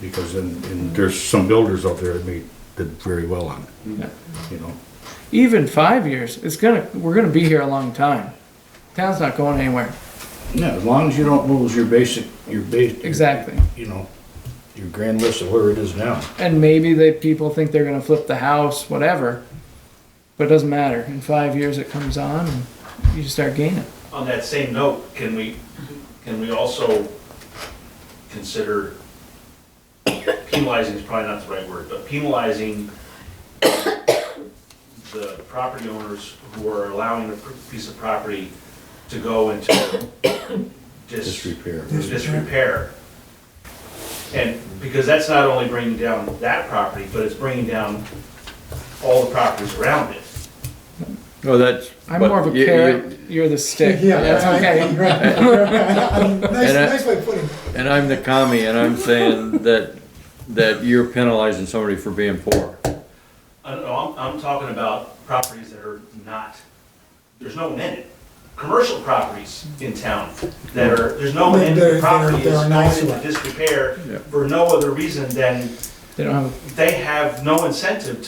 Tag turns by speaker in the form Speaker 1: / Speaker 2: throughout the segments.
Speaker 1: because in, in, there's some builders out there that made, did very well on it. You know,
Speaker 2: Even five years, it's gonna, we're gonna be here a long time. Town's not going anywhere.
Speaker 1: yeah, as long as you don't lose your basic, your base.
Speaker 2: Exactly.
Speaker 1: You know, your grand list of where it is now.
Speaker 2: And maybe they, people think they're gonna flip the house, whatever. But it doesn't matter. In five years, it comes on and you just start gaining.
Speaker 3: On that same note, can we, can we also consider penalizing is probably not the right word, but penalizing the property owners who are allowing a piece of property to go into dis-
Speaker 1: Disrepair.
Speaker 3: disrepair? And, because that's not only bringing down that property, but it's bringing down all the properties around it.
Speaker 4: Well, that's.
Speaker 2: I'm
Speaker 4: but
Speaker 2: more of a
Speaker 4: you- you-
Speaker 2: carrot, you're the stick.
Speaker 5: Yeah,
Speaker 2: That's
Speaker 5: I- I-
Speaker 2: okay.
Speaker 5: I mean,
Speaker 4: And
Speaker 5: Nice,
Speaker 4: uh, I-
Speaker 5: nice way of putting it.
Speaker 4: And I'm the commie, and I'm saying that, that you're penalizing somebody for being poor.
Speaker 3: I don't know, I'm, I'm talking about properties that are not, there's no one in it. Commercial properties in town that are, there's no one in
Speaker 5: They're-
Speaker 3: the
Speaker 5: they're-
Speaker 3: property is
Speaker 5: they're
Speaker 3: going
Speaker 5: nice
Speaker 3: into
Speaker 5: ones.
Speaker 3: disrepair
Speaker 4: Yeah.
Speaker 3: for no other reason than
Speaker 2: They don't have,
Speaker 3: they have no incentive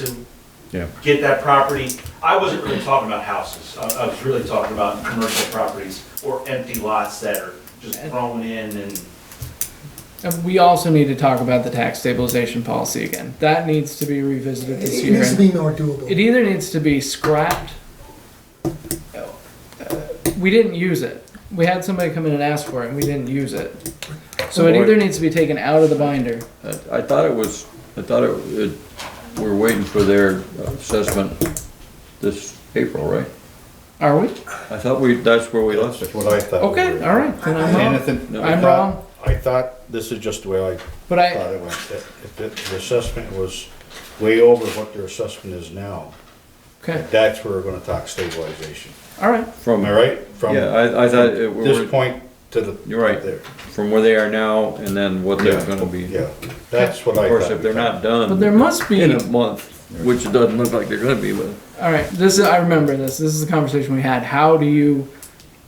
Speaker 4: Yeah.
Speaker 3: to get that property. I wasn't really talking about houses, I, I was really talking about commercial properties or empty lots that are just thrown in and.
Speaker 2: and we also need to talk about the tax stabilization policy again. That needs to be revisited this
Speaker 5: It
Speaker 2: year.
Speaker 5: needs to be more doable.
Speaker 2: It either needs to be scrapped. uh, We didn't use it. We had somebody come in and ask for it, and we didn't use it. So it either needs to be taken out of the binder.
Speaker 4: Uh, I- I thought it was, I thought it, it, we're waiting for their assessment this April, right?
Speaker 2: Are we?
Speaker 4: I thought we, that's where we left it.
Speaker 1: That's what I thought.
Speaker 2: Okay, all right. Then I'm wrong.
Speaker 1: Anything?
Speaker 2: I'm wrong.
Speaker 1: I thought, this is just the way I
Speaker 2: But
Speaker 1: thought
Speaker 2: I,
Speaker 1: it went, that if the the assessment was way over what their assessment is now,
Speaker 2: okay,
Speaker 1: that's where we're gonna talk stabilization.
Speaker 2: all right.
Speaker 4: From,
Speaker 1: Am I
Speaker 4: yeah,
Speaker 1: right? From
Speaker 4: I, I thought it
Speaker 1: This
Speaker 4: were,
Speaker 1: point to the.
Speaker 4: You're right.
Speaker 1: there.
Speaker 4: from where they are now and then what they're gonna be.
Speaker 1: Yeah, that's what I thought.
Speaker 4: Of course, if they're not done.
Speaker 2: But there must be-
Speaker 4: In a month, which it doesn't look like they're gonna be, but.
Speaker 2: All right, this is, I remember this. This is the conversation we had. How do you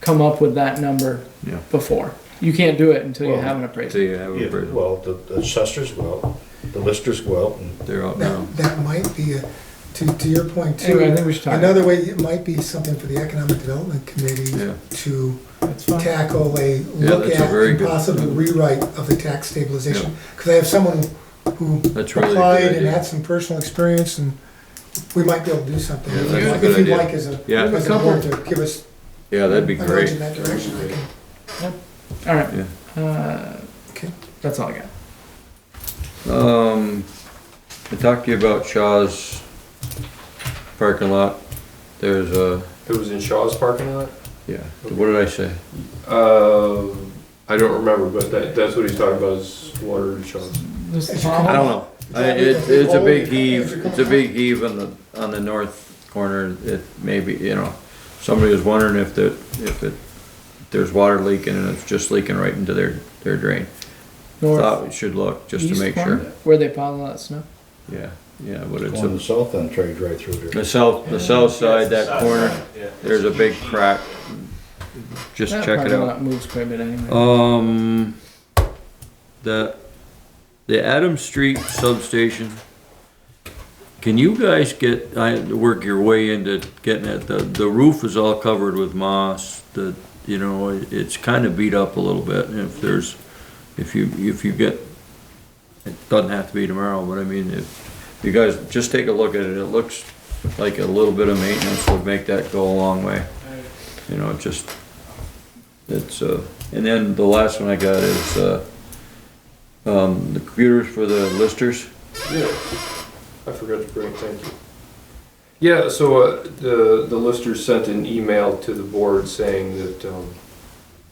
Speaker 2: come up with that number
Speaker 4: Yeah.
Speaker 2: before? You can't do it until you
Speaker 1: Well,
Speaker 2: have an
Speaker 4: So
Speaker 2: appraisal.
Speaker 4: you have
Speaker 1: Yeah,
Speaker 4: a, break.
Speaker 1: well, the the assessors will, out, the listers will, out, and
Speaker 4: they're out now.
Speaker 5: That, that might be, a- to, to your point too.
Speaker 2: Anyway, I think we should talk.
Speaker 5: Another way, it might be something for the Economic Development Committee
Speaker 4: Yeah.
Speaker 5: to
Speaker 2: That's fine.
Speaker 5: tackle a
Speaker 4: Yeah,
Speaker 5: look
Speaker 4: that's a
Speaker 5: at
Speaker 4: very
Speaker 5: and
Speaker 4: good-
Speaker 5: possible rewrite of the tax stabilization. Because I have someone who
Speaker 4: That's really a good
Speaker 5: applied and
Speaker 4: idea.
Speaker 5: had some personal experience and we might be able to do something.
Speaker 4: Yeah,
Speaker 5: If
Speaker 4: that's
Speaker 5: you'd
Speaker 4: a
Speaker 5: like-
Speaker 4: good
Speaker 5: If you'd
Speaker 4: idea.
Speaker 5: like as a,
Speaker 4: Yeah.
Speaker 5: as a board to give us
Speaker 4: Yeah, that'd be
Speaker 5: a nudge
Speaker 4: great.
Speaker 5: in that direction, I can,
Speaker 2: All right.
Speaker 4: Yeah.
Speaker 2: Uh,
Speaker 5: okay.
Speaker 2: that's all I got.
Speaker 4: Um, I talked to you about Shaw's parking lot. There's a,
Speaker 6: It was in Shaw's parking lot.
Speaker 4: yeah, what did I say?
Speaker 6: Uh, I don't remember, but that, that's what he's talking about is water in Shaw's.
Speaker 2: This
Speaker 5: If
Speaker 2: is
Speaker 5: you
Speaker 2: all-
Speaker 4: I
Speaker 5: come
Speaker 4: don't know. I, it, it's a big heave, it's a big heave on the, on the north corner. It maybe, you know, somebody was wondering if the, if it, there's water leaking and it's just leaking right into their, their drain.
Speaker 2: north,
Speaker 4: Thought we should look just to
Speaker 2: east
Speaker 4: make
Speaker 2: corner,
Speaker 4: sure.
Speaker 2: Where they pile that snow.
Speaker 4: Yeah, yeah, but it's
Speaker 1: on the
Speaker 4: a,
Speaker 1: south end trade right through there.
Speaker 4: the south, the south side, that
Speaker 3: South
Speaker 4: corner,
Speaker 3: side, yeah.
Speaker 4: there's a big crack. Just
Speaker 2: That
Speaker 4: check it
Speaker 2: parking
Speaker 4: out.
Speaker 2: lot Moves quite a bit anyway.
Speaker 4: Um, the, the Adams Street substation. Can you guys get, I had to work your way into getting it, the, the roof is all covered with moss, the, you know, it- it's kinda beat up a little bit, and if there's, if you, if you get, it doesn't have to be tomorrow, but I mean, if, you guys just take a look at it, it looks like a little bit of maintenance would make that go a long way. You know, it just, it's, uh, and then the last one I got is, uh, um, the computers for the listers.
Speaker 6: Yeah, I forgot to bring. it, Thank you. Yeah, so uh, the the lister sent an email to the board saying that um,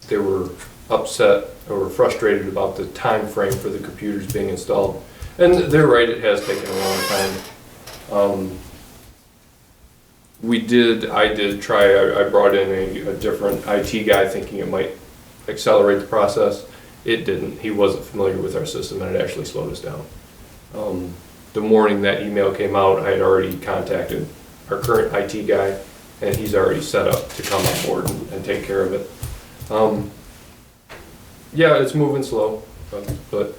Speaker 6: they were upset or frustrated about the time frame for the computers being installed, and they're right. It has taken a long time. Um, we did. I did try. I, I brought in a, a different IT guy, thinking it might accelerate the process. It didn't. He wasn't familiar with our system, and it actually slowed us down. Um, the morning that email came out, I had already contacted our current IT guy, and he's already set up to come on board and, and take care of it. Um, yeah, it's moving slow, but, but